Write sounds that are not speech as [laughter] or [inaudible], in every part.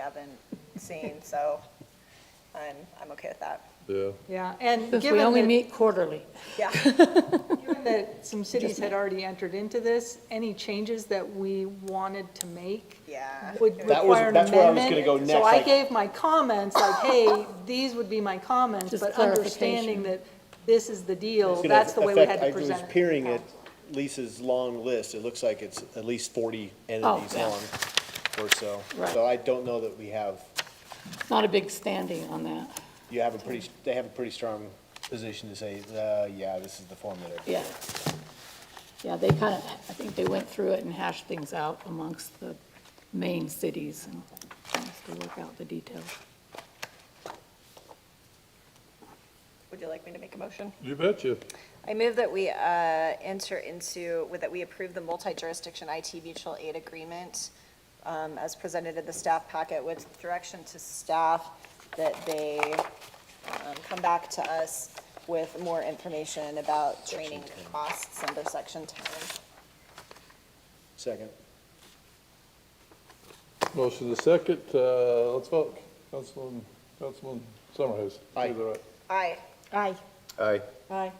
haven't seen, so I'm, I'm okay with [laughs] that. Yeah, Yeah, and Because we given only that, meet quarterly. Yeah, given that some cities had already entered into this, any changes that we wanted to make yeah. would It That was- require an amendment. that's where I was gonna go So next, I like- gave my comments, like, hey, these would be my comments, Just but understanding clarification. that this is the deal, It's gonna that's the way we affect- had to present it. I was peering at Lisa's long list, it looks like it's at least forty Oh. entities yeah. long or so. Right. So I don't know that we have, Not a big standing on that, you have a pretty, they have a pretty strong position to say, uh, yeah, this is the form that it. yeah. Yeah, they kind of, I think they went through it and hashed things out amongst the main cities and tries to work out the details. Would you like me to make a motion? you betcha. I move that we uh, enter into, that we approve the multi-jurisdiction IT mutual aid agreement um, as presented in the staff packet with direction to staff that they um, come back to us with more information about training costs under section 10. Second. Motion to second, uh, let's vote. Councilman, Councilman Summerhouse. Aye. You're right. Aye. Aye. Aye. Aye.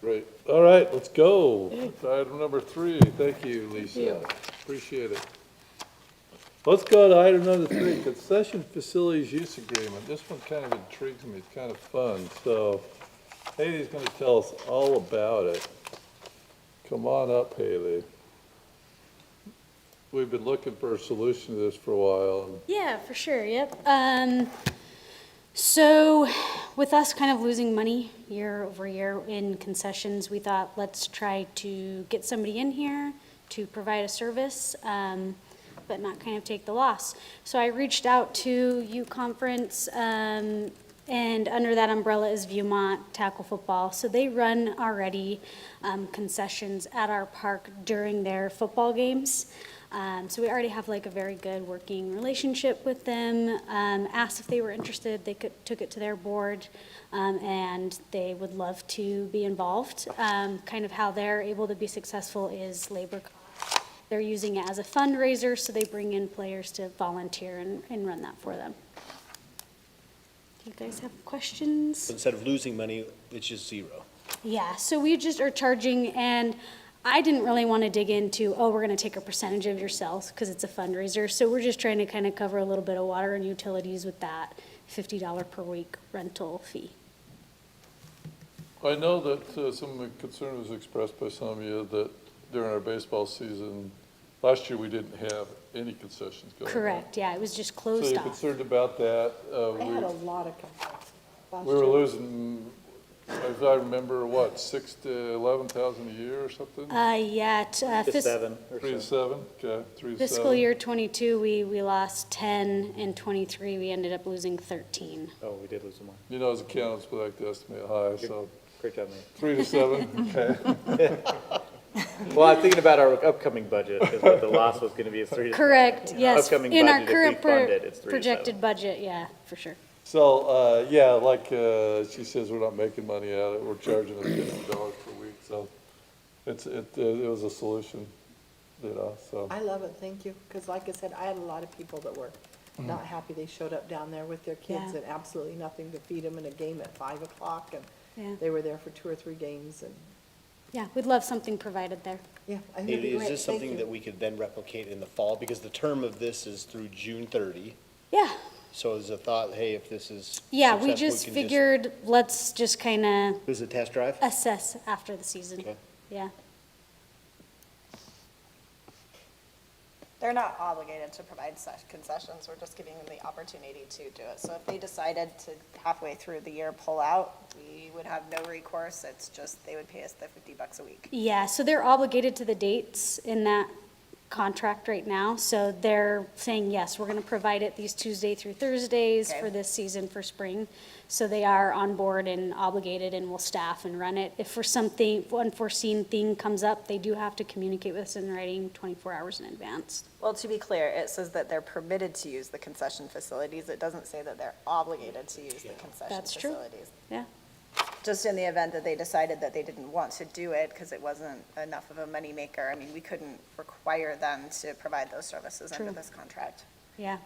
Great. All right, let's go. Item number three. Thank you, Lisa. you. Appreciate it. Let's go to item number three, concession facilities use agreement. This one kind of intrigues me. It's kind of fun. So Haley's going to tell us all about it. Come on up, Haley. We've been looking for a solution to this for a while. and Yeah, for sure. Yep. Um, so, with us kind of losing money year over year in concessions, we thought let's try to get somebody in here to provide a service, um, but not kind of take the loss. So, I reached out to U Conference, um, and under that umbrella is Viewmont Tackle Football. So, they run already um, concessions at our park during their football games. Um, so we already have like a very good working relationship with them. Um, asked if they were interested, they could, took it to their board, um, and they would love to be involved. Um, kind of how they're able to be successful is labor. costs. They're using it as a fundraiser, so they bring in players to volunteer and, and run that for them. Do you guys have questions? Instead of losing money, it's just zero. Yeah, so we just are charging, and I didn't really want to dig into, oh, we're going to take a percentage of your sales because it's a fundraiser. So we're just trying to kind of cover a little bit of water and utilities with that $50 per week rental fee. I know that uh, some of the concern was expressed by some of you that during our baseball season, last year, we didn't have any concessions going on. Correct, yeah, it was just So closed you're off. concerned about that. uh, I had a we- lot of complaints. last We were year. losing, as I remember, what, six to 11,000 a year or something? Uh, yeah, t- uh, Three fis- to seven, okay, three to seven. fiscal year '22, we, we lost 10, and '23, we ended up losing 13. Oh, we did lose some more. You know, as accountants, we like to estimate high, so Great job, man. three to [laughs] seven, okay. Well, I'm thinking about our upcoming budget, because what the loss was gonna be is three. to- Correct, in our yes. upcoming In our budget, if we fund current pro- it, it's three to seven. Projected budget, yeah, for sure. So, uh, yeah, like, uh, she says, we're not making money out of it, we're charging us fifty dollars per week, so it's, it, it was a solution, you know, so. I love it, thank you, because like I said, I had a lot of people that were Mm-hmm. not happy they showed up down there with their kids Yeah. and absolutely nothing to feed them in a game at five o'clock, Yeah. and they were there for two or three games, and, Yeah, we'd love something provided there. yeah, I think it'd be Is great, this thank something that you. we could then replicate in the fall? Because the term of this is through June thirty. Yeah, So is the thought, hey, if this is. yeah, we successful, just can figured, let's just kind of This is a test drive? assess after the season. Okay. Yeah, They're not obligated to provide such concessions, we're just giving them the opportunity to do it. So if they decided to halfway through the year pull out, we would have no recourse, it's just, they would pay us the 50 bucks a week. yeah, so they're obligated to the dates in that contract right now. So they're saying, yes, we're going to provide it these Tuesday through Thursdays Okay. for this season for spring. So they are on board and obligated and will staff and run it. If for something, if unforeseen thing comes up, they do have to communicate with us in writing 24 hours in advance. Well, to be clear, it says that they're permitted to use the concession facilities, it doesn't say that they're obligated to use the concession That's true. facilities. Yeah. Just in the event that they decided that they didn't want to do it because it wasn't enough of a moneymaker, I mean, we couldn't require them to provide those services under True. this contract. Yeah,